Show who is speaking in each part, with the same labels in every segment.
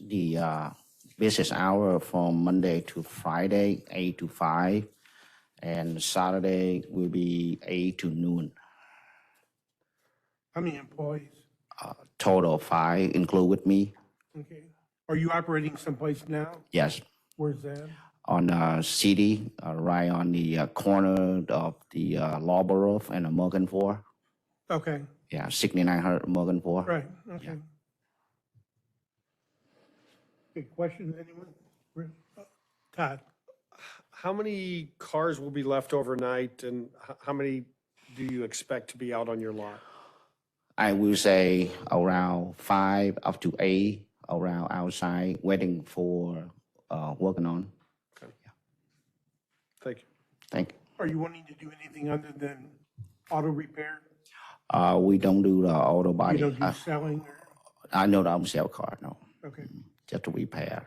Speaker 1: the uh, business hour from Monday to Friday, eight to five, and Saturday will be eight to noon.
Speaker 2: How many employees?
Speaker 1: Uh, Total of five, include with me.
Speaker 2: Okay. Are you operating someplace now?
Speaker 1: Yes,
Speaker 2: Where's that?
Speaker 1: on uh, city, uh, right on the uh, corner of the uh, Lawborough and uh, Morgan Four.
Speaker 2: Okay,
Speaker 1: Yeah, sixty-nine hundred Morgan Four.
Speaker 2: right, okay. Good questions, anyone? Rick? Todd?
Speaker 3: How many cars will be left overnight and h- how many do you expect to be out on your lot?
Speaker 1: I will say around five up to eight around outside waiting for uh, working on.
Speaker 3: Thank you.
Speaker 1: Thank you.
Speaker 2: Are you wanting to do anything other than auto repair?
Speaker 1: Uh, we don't do the auto
Speaker 2: You
Speaker 1: body.
Speaker 2: don't do
Speaker 1: I,
Speaker 2: selling or,
Speaker 1: I know that I don't sell car, no,
Speaker 2: okay.
Speaker 1: just to repair.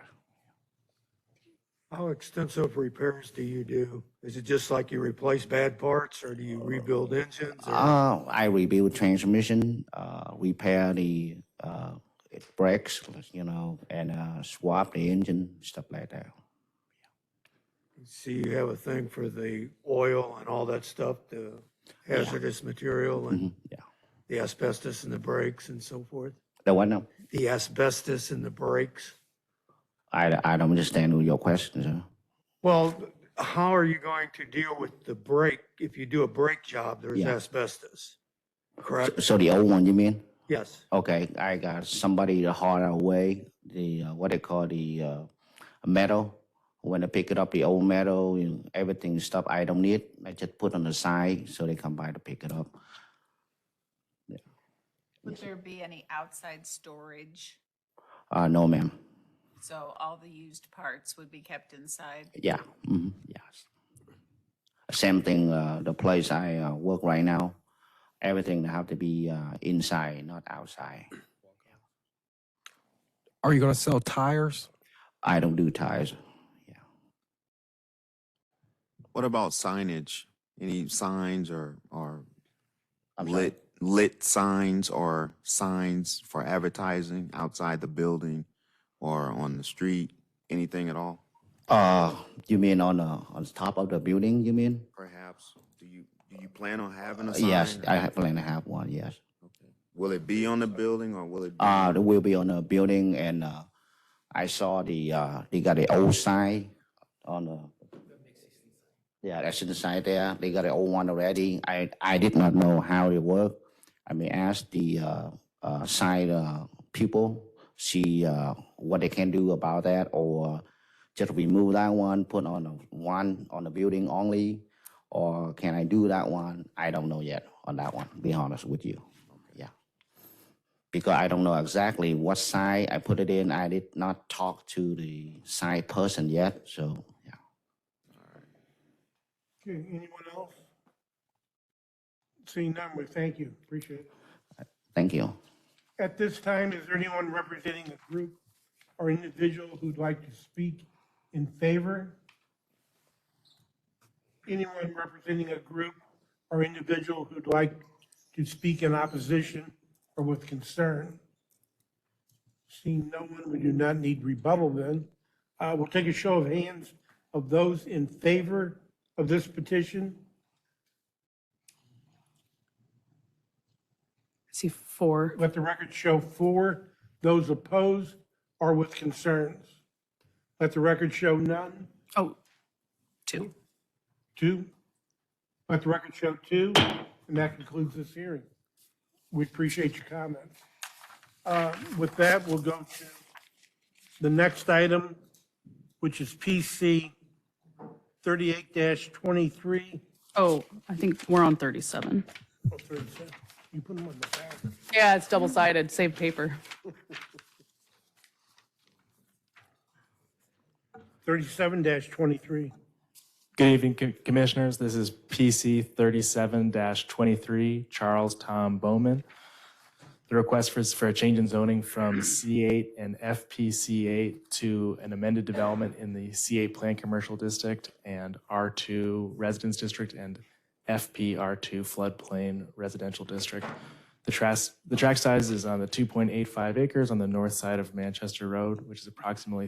Speaker 4: How extensive repairs do you do? Is it just like you replace bad parts or do you rebuild engines? or-
Speaker 1: Uh, I rebuild transmission, uh, repair the uh, brakes, you know, and uh, swap the engine, stuff like that.
Speaker 4: See, you have a thing for the oil and all that stuff, the hazardous material and
Speaker 1: Yeah,
Speaker 4: the asbestos in the brakes and so forth?
Speaker 1: the one uh,
Speaker 4: The asbestos in the brakes?
Speaker 1: I I don't understand your question, sir.
Speaker 4: Well, how are you going to deal with the brake? If you do a brake job, there's
Speaker 1: Yeah.
Speaker 4: asbestos, correct?
Speaker 1: So the old one, you mean?
Speaker 4: Yes.
Speaker 1: Okay, I got somebody to haul it away, the, uh, what they call the, uh, metal. When they pick it up, the old metal and everything stuff I don't need, I just put on the side so they come by to pick it up.
Speaker 5: Would there be any outside storage?
Speaker 1: Uh, no, ma'am.
Speaker 5: So all the used parts would be kept inside?
Speaker 1: Yeah, mhm, yes. Same thing, uh, the place I, uh, work right now, everything have to be, uh, inside, not outside.
Speaker 6: Are you going to sell tires?
Speaker 1: I don't do tires.
Speaker 7: What about signage? Any signs or, or
Speaker 1: I'm sorry.
Speaker 7: lit, lit signs or signs for advertising outside the building or on the street? Anything at all?
Speaker 1: Uh, you mean on, uh, on top of the building, you mean?
Speaker 7: Perhaps, do you, do you plan on having a sign?
Speaker 1: Yes, I have- plan to have one, yes.
Speaker 7: Will it be on the building or will it? be-
Speaker 1: Uh, there will be on the building and, uh, I saw the, uh, they got the old sign on the. Yeah, that's in the side there. They got the old one already. I, I did not know how it worked. I mean, ask the, uh, uh, side, uh, people, see, uh, what they can do about that or just remove that one, put on a- one on the building only? Or can I do that one? I don't know yet on that one, be honest with you. Yeah because I don't know exactly what side I put it in. I did not talk to the side person yet, so yeah.
Speaker 2: Okay, anyone else? Seeing none, we thank you, appreciate it.
Speaker 1: Thank you.
Speaker 2: At this time, is there anyone representing a group or individual who'd like to speak in favor? Anyone representing a group or individual who'd like to speak in opposition or with concern? Seeing no one, we do not need rebuttal then. Uh, We'll take a show of hands of those in favor of this petition.
Speaker 8: See four.
Speaker 2: Let the record show four, those opposed or with concerns. Let the record show none,
Speaker 8: Oh, two.
Speaker 2: two. Let the record show two, and that concludes this hearing. We appreciate your comments. Uh, With that, we'll go to the next item, which is PC 38-23.
Speaker 8: Oh, I think we're on 37.
Speaker 2: Oh, 37. You put them on the back.
Speaker 8: Yeah, it's double sided, save paper.
Speaker 2: 37-23.
Speaker 9: Good evening, co- Commissioners. This is PC 37-23, Charles Tom Bowman. The request for, for a change in zoning from C8 and FPC8 to an amended development in the C8 Plan Commercial District and R2 Residence District and FPR2 Floodplain Residential District. The tras- the track size is on the 2.85 acres on the north side of Manchester Road, which is approximately